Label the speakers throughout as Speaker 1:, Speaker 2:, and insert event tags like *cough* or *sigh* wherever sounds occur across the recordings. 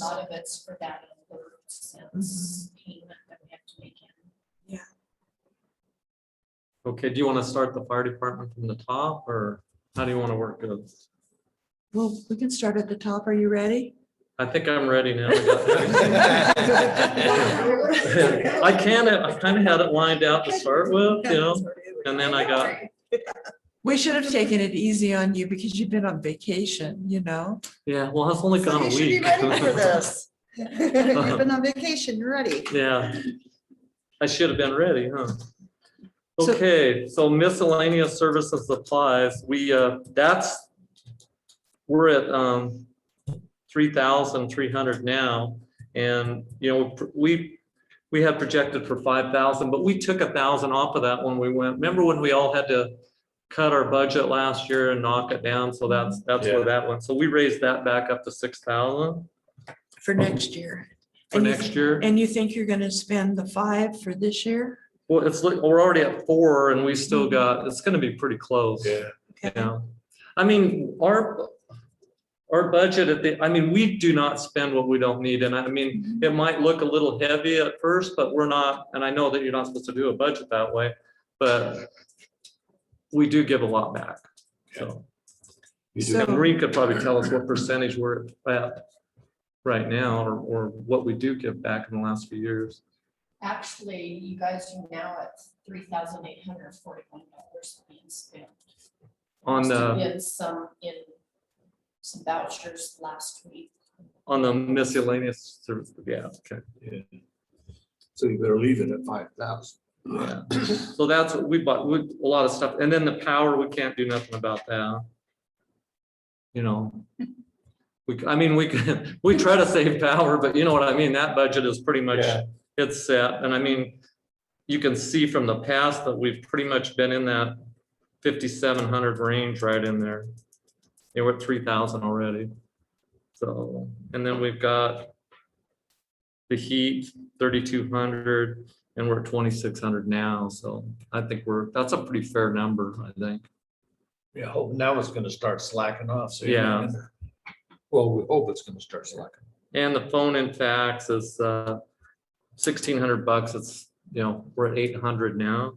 Speaker 1: A lot of it's for that sense payment that we have to make in.
Speaker 2: Okay, do you want to start the fire department from the top or how do you want to work it?
Speaker 3: Well, we can start at the top. Are you
Speaker 2: *laughs*
Speaker 3: ready?
Speaker 2: I think I'm ready now. I got- I can, I kind of had it lined out to start with, you know, and then I got,
Speaker 3: We should have taken it easy on you because you've been on vacation, you know?
Speaker 2: yeah, well, it's only gone a
Speaker 4: You should be
Speaker 2: week.
Speaker 4: ready for
Speaker 3: *laughs*
Speaker 4: this. You've been on vacation, you're ready.
Speaker 2: Yeah, I should have been ready, huh?
Speaker 3: So-
Speaker 2: Okay, so miscellaneous services supplies, we, uh, that's, we're at, um, three thousand three hundred now, and, you know, we, we had projected for five thousand, but we took a thousand off of that when we went, remember when we all had to cut our budget last year and knock it down, so that's, that's where
Speaker 5: Yeah.
Speaker 2: that went, so we raised that back up to six thousand
Speaker 3: For next year.
Speaker 2: for
Speaker 3: And you-
Speaker 2: next year.
Speaker 3: And you think you're gonna spend the five for this year?
Speaker 2: Well, it's, like- we're already at four and we still got, it's gonna be pretty close.
Speaker 5: Mm-hmm.
Speaker 2: You
Speaker 5: Yeah,
Speaker 3: Okay.
Speaker 2: know, I mean, our, our budget at the, I mean, we do not spend what we don't need. And I
Speaker 5: Mm-hmm.
Speaker 2: mean, it might look a little heavy at first, but we're not, and I know that you're not supposed to do a budget that way, but we do give a lot back. So,
Speaker 5: you do.
Speaker 3: So-
Speaker 2: and Reed could probably tell us what percentage we're at right now or, or what we do give back in the last few years.
Speaker 1: Actually, you guys are now at three thousand eight hundred forty-one dollars being spent.
Speaker 2: On
Speaker 1: So
Speaker 2: the,
Speaker 1: We had some in, some vouchers last week.
Speaker 2: on the miscellaneous service, yeah, okay.
Speaker 5: So you better leave it at five thousand.
Speaker 2: Yeah. So that's what we bought, we, a lot of stuff, and then the power, we can't do nothing about that. You know. We, c- I mean, we can, *laughs* we try to save power, but you know what I mean, that budget is pretty much,
Speaker 5: Yeah.
Speaker 2: it's set, and I mean. You can see from the past that we've pretty much been in that fifty-seven hundred range right in there. Yeah, we're at three thousand already. So, and then we've got. The heat, thirty-two hundred, and we're at twenty-six hundred now, so I think we're, that's a pretty fair number, I think.
Speaker 5: Yeah, hope now it's gonna start slacking off. so you're
Speaker 2: Yeah.
Speaker 5: not in there. Well, we hope it's gonna start slacking.
Speaker 2: And the phone and fax is uh sixteen hundred bucks, it's, you know, we're at eight hundred now.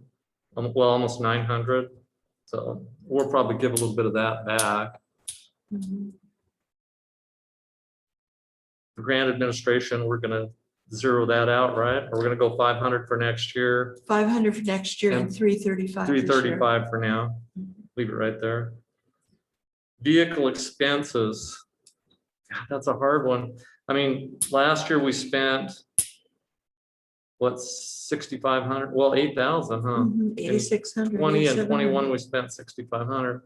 Speaker 2: Um, well, almost nine hundred, so we'll probably give a little bit of that back. Grant administration, we're gonna zero that out, right? Or we're gonna go five hundred for next year,
Speaker 3: Five hundred for next year and
Speaker 2: And
Speaker 3: three thirty-five.
Speaker 2: three thirty-five for now, leave it right there. Vehicle expenses. God, That's a hard one. I mean, last year we spent. What, sixty-five hundred, well, eight thousand, huh?
Speaker 3: Mm-hmm. Eighty-six hundred.
Speaker 2: Twenty and twenty-one, we spent sixty-five hundred.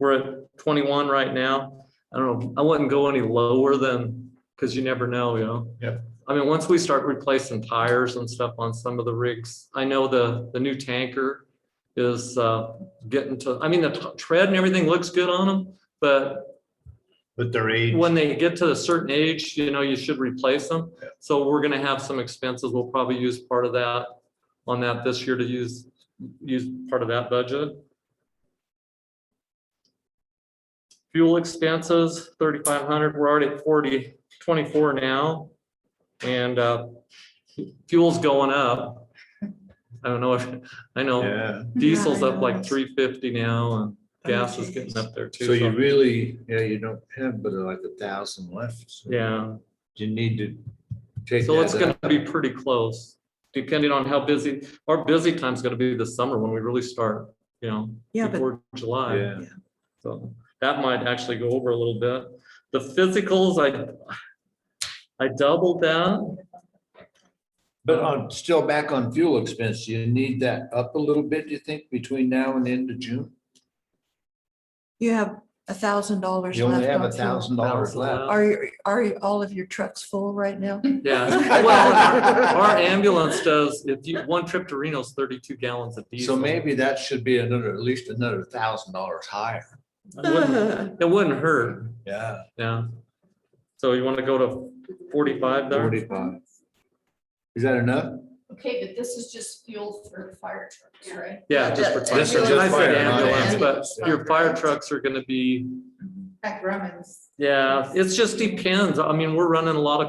Speaker 2: We're at twenty-one right now. I don't know, I wouldn't go any lower than, because you never know, you know?
Speaker 5: Yep.
Speaker 2: I mean, once we start replacing tires and stuff on some of the rigs, I know the, the new tanker is uh, getting to, I mean, the t- tread and everything looks good on them, but
Speaker 5: But their age.
Speaker 2: when they get to a certain age, you know, you should replace them.
Speaker 5: Yeah.
Speaker 2: So we're gonna have some expenses. We'll probably use part of that on that this year to use, use part of that budget. Fuel expenses, thirty-five hundred. We're already at forty, twenty-four now. And uh, fuel's going up. I don't know if, I know
Speaker 5: Yeah,
Speaker 2: diesel's up
Speaker 3: Yeah, I
Speaker 2: like
Speaker 3: know.
Speaker 2: three fifty now and
Speaker 3: Oh,
Speaker 2: gas is
Speaker 3: geez.
Speaker 2: getting up there too.
Speaker 5: so you really, yeah, you don't have but uh, like a thousand left. so
Speaker 2: Yeah.
Speaker 5: You need to take.
Speaker 2: So it's
Speaker 5: that
Speaker 2: gonna
Speaker 5: out.
Speaker 2: be pretty close, depending on how busy, our busy time's gonna be this summer when we really start, you know,
Speaker 3: Yeah, but
Speaker 2: before July.
Speaker 5: Yeah,
Speaker 2: So that might actually go over a little bit. The physicals, I, I doubled that.
Speaker 5: but on, still back on fuel expense, you need that up a little bit, you think, between now and end of June?
Speaker 3: you have a thousand dollars left.
Speaker 5: You only have
Speaker 3: on
Speaker 5: a
Speaker 3: fuel.
Speaker 5: thousand dollars
Speaker 2: Thousand
Speaker 5: left.
Speaker 2: left.
Speaker 3: Are, you- are you- all of your trucks full right now?
Speaker 2: Yeah, *laughs* well, *laughs* our ambulance does, if you, one trip to Reno's thirty-two gallons of diesel.
Speaker 5: So maybe that should be another, at least another thousand dollars higher.
Speaker 2: It wouldn't- it wouldn't hurt,
Speaker 5: Yeah.
Speaker 2: yeah. So you wanna go to forty-five there?
Speaker 5: Forty-five. Is that enough?
Speaker 1: Okay, but this is just fuel for the fire trucks, right?
Speaker 2: Yeah, just for.
Speaker 4: Just-
Speaker 2: fire
Speaker 5: just for
Speaker 2: trucks. I said
Speaker 5: fire, not
Speaker 2: ambulance,
Speaker 4: ambulance.
Speaker 2: But your fire trucks are gonna be,
Speaker 4: Heck, Romans.
Speaker 2: yeah, it's just depends. I mean, we're running a lot of